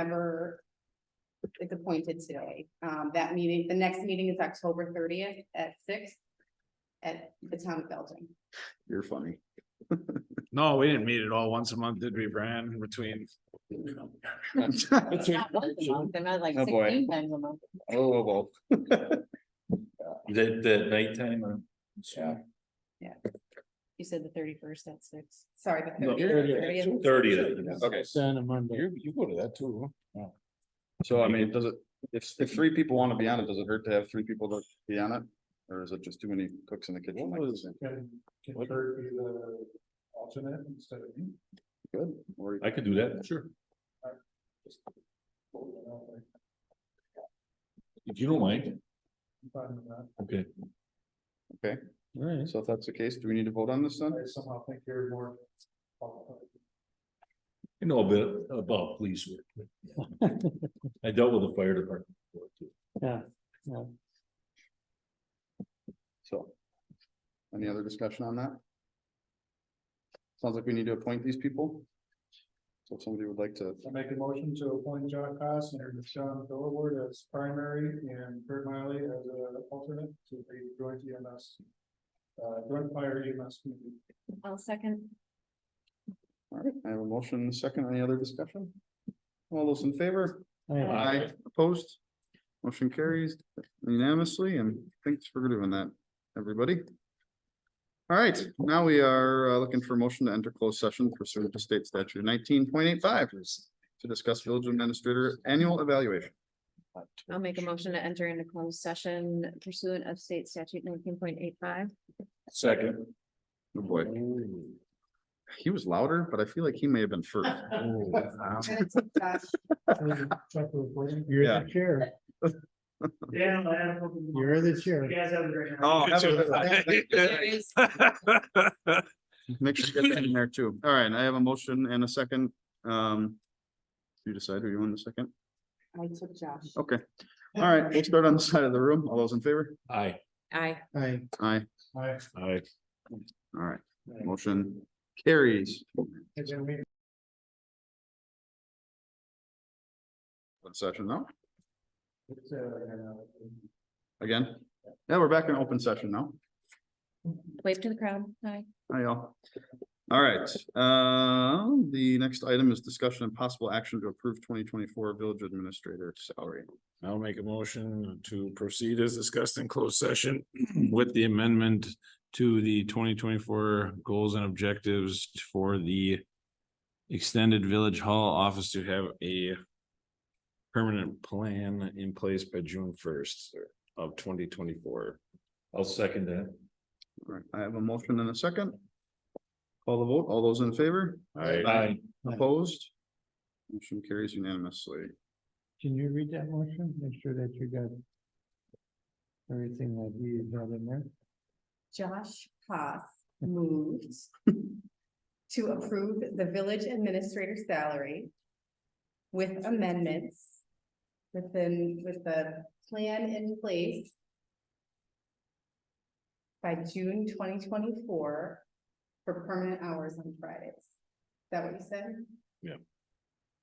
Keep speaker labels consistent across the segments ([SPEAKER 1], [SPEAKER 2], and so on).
[SPEAKER 1] whomever is appointed today. Um, that meeting, the next meeting is October thirtieth at six at the town of Belgium.
[SPEAKER 2] You're funny.
[SPEAKER 3] No, we didn't meet at all once a month, did we, Brian, in between?
[SPEAKER 2] Oh,
[SPEAKER 4] Not once a month, They're not like
[SPEAKER 2] Oh, boy.
[SPEAKER 4] sixteen times a month.
[SPEAKER 5] oh,
[SPEAKER 2] well.
[SPEAKER 6] That, that nighttime or?
[SPEAKER 2] Yeah.
[SPEAKER 4] You said the thirty-first at six.
[SPEAKER 1] Sorry, the
[SPEAKER 6] No,
[SPEAKER 1] thirtieth.
[SPEAKER 6] Thirtieth.
[SPEAKER 2] Okay,
[SPEAKER 3] Santa Monday.
[SPEAKER 6] You, you go to that too.
[SPEAKER 2] so I mean, does it, if, if three people want to be on it, does it hurt to have three people to be on it? Or is it just too many cooks in the kitchen? like this?
[SPEAKER 5] Can, can Kurt be the alternate instead of me?
[SPEAKER 2] Good. Or-
[SPEAKER 6] I could do that, sure.
[SPEAKER 5] Just- well, you know, like,
[SPEAKER 6] If you don't mind,
[SPEAKER 5] I'm fine with that.
[SPEAKER 6] okay.
[SPEAKER 3] Alright.
[SPEAKER 2] So if that's the case, do we need to vote on this then?
[SPEAKER 5] I somehow think you're more.
[SPEAKER 6] You know a bit about police work. I dealt with the fire department. before too.
[SPEAKER 2] So. Any other discussion on that? Sounds like we need to appoint these people. So if somebody would like to,
[SPEAKER 5] I make a motion to appoint John Costner and Sean Philward as primary and Kurt Miley as an alternate to the joint EMS. Uh, joint fire EMS. committee.
[SPEAKER 4] I'll second.
[SPEAKER 2] all right, I have a motion, and a second, any other discussion? All those in favor? Aye. Opposed? Motion carries unanimously, and thanks for doing that, everybody. All right, now we are uh, looking for a motion to enter closed session pursuant to state statute nineteen point eight five to discuss village administrator annual evaluation.
[SPEAKER 4] I'll make a motion to enter into closed session pursuant of state statute nineteen point eight five.
[SPEAKER 6] Second.
[SPEAKER 2] Oh boy, he was louder, but I feel like he may have been first.
[SPEAKER 5] Check the recording.
[SPEAKER 2] Yeah.
[SPEAKER 7] Chair,
[SPEAKER 5] Yeah, I have.
[SPEAKER 7] you're the chair.
[SPEAKER 5] guys have a great night.
[SPEAKER 2] Oh, have a- Make sure you get that in there too. All right, I have a motion and a second. Um. You decide who you want in a second.
[SPEAKER 1] I took Josh.
[SPEAKER 2] Okay. All right, we'll start on the side of the room. All those in favor?
[SPEAKER 6] Aye.
[SPEAKER 4] Aye.
[SPEAKER 7] Aye.
[SPEAKER 2] Aye.
[SPEAKER 5] Hi.
[SPEAKER 6] Aye.
[SPEAKER 2] All right, motion carries.
[SPEAKER 5] It's gonna be-
[SPEAKER 2] Open Session now,
[SPEAKER 5] it's, uh, uh,
[SPEAKER 2] again. Yeah, we're back in open session now.
[SPEAKER 4] Wave to the crowd. Aye.
[SPEAKER 2] Hi, y'all. All right, uh, the next item is discussion and possible action to approve twenty twenty-four village administrator salary.
[SPEAKER 3] I'll make a motion to proceed as discussed in closed session with the amendment to the twenty twenty-four goals and objectives for the extended village hall office to have a permanent plan in place by June first of twenty twenty-four.
[SPEAKER 6] I'll second that.
[SPEAKER 2] All right, I have a motion and a second. Call the vote, all those in favor?
[SPEAKER 6] Aye.
[SPEAKER 2] Opposed? Motion carries unanimously.
[SPEAKER 7] Can you read that motion? Make sure that you got everything that we got in there.
[SPEAKER 1] Josh Haas moved to approve the village administrator salary with amendments within, with the plan in place by June twenty twenty-four for permanent hours on Fridays. Is that what you said?
[SPEAKER 3] Yeah.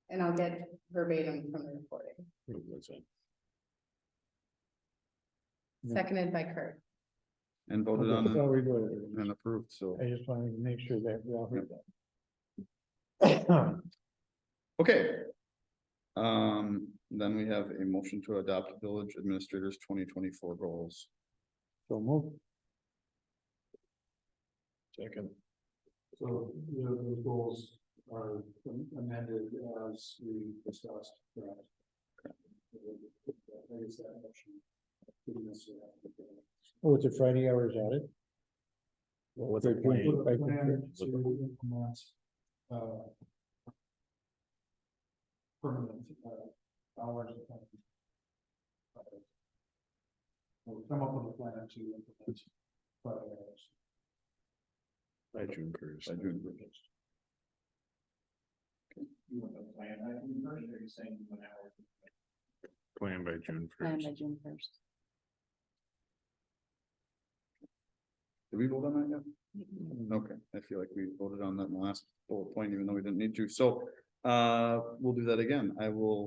[SPEAKER 1] And I'll get verbatim from the recording,
[SPEAKER 7] Yeah.
[SPEAKER 1] seconded by Kurt.
[SPEAKER 2] And voted on
[SPEAKER 7] So we voted.
[SPEAKER 2] and approved, so.
[SPEAKER 7] I just wanted to make sure that we all heard that.
[SPEAKER 2] Okay. Um, then we have a motion to adopt village administrators twenty twenty-four goals.
[SPEAKER 7] So move.
[SPEAKER 6] Second.
[SPEAKER 5] So, you know, those goals are amended as we discussed. correct? I guess that motion didn't necessarily have to be-
[SPEAKER 7] Oh, it's a Friday hours added.
[SPEAKER 6] With
[SPEAKER 7] Thirteen,
[SPEAKER 5] With a
[SPEAKER 7] right,
[SPEAKER 5] plan to implement, uh, Permanent, uh, hours. of- uh, We'll come up with a plan to implement. Friday hours.
[SPEAKER 3] By June first.
[SPEAKER 2] By June first.
[SPEAKER 5] You want a plan, I think, or are you saying one hour?
[SPEAKER 3] Plan by June
[SPEAKER 4] Plan
[SPEAKER 3] first.
[SPEAKER 4] by June first.
[SPEAKER 2] Did we vote on that yet? Okay, I feel like we voted on that in the last bullet point, even though we didn't need to. So Uh, we'll do that again. I will